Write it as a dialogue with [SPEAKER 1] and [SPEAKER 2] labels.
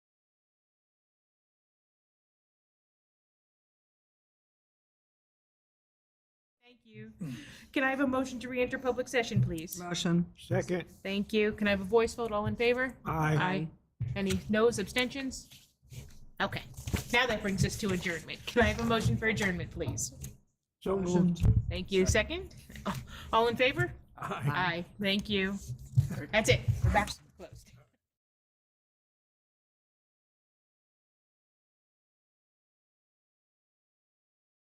[SPEAKER 1] you. Can I have a motion to re-enter public session, please?
[SPEAKER 2] Motion.
[SPEAKER 3] Second,
[SPEAKER 1] Thank you. Can I have a voice vote? All in favor?
[SPEAKER 3] aye.
[SPEAKER 1] Any no's, abstentions? Okay. Now that brings us to adjournment. Can I have a motion for adjournment, please?
[SPEAKER 3] So moved.
[SPEAKER 1] Thank you. Second? All in favor?
[SPEAKER 3] Aye.
[SPEAKER 1] Aye. Thank you. That's it. We're back.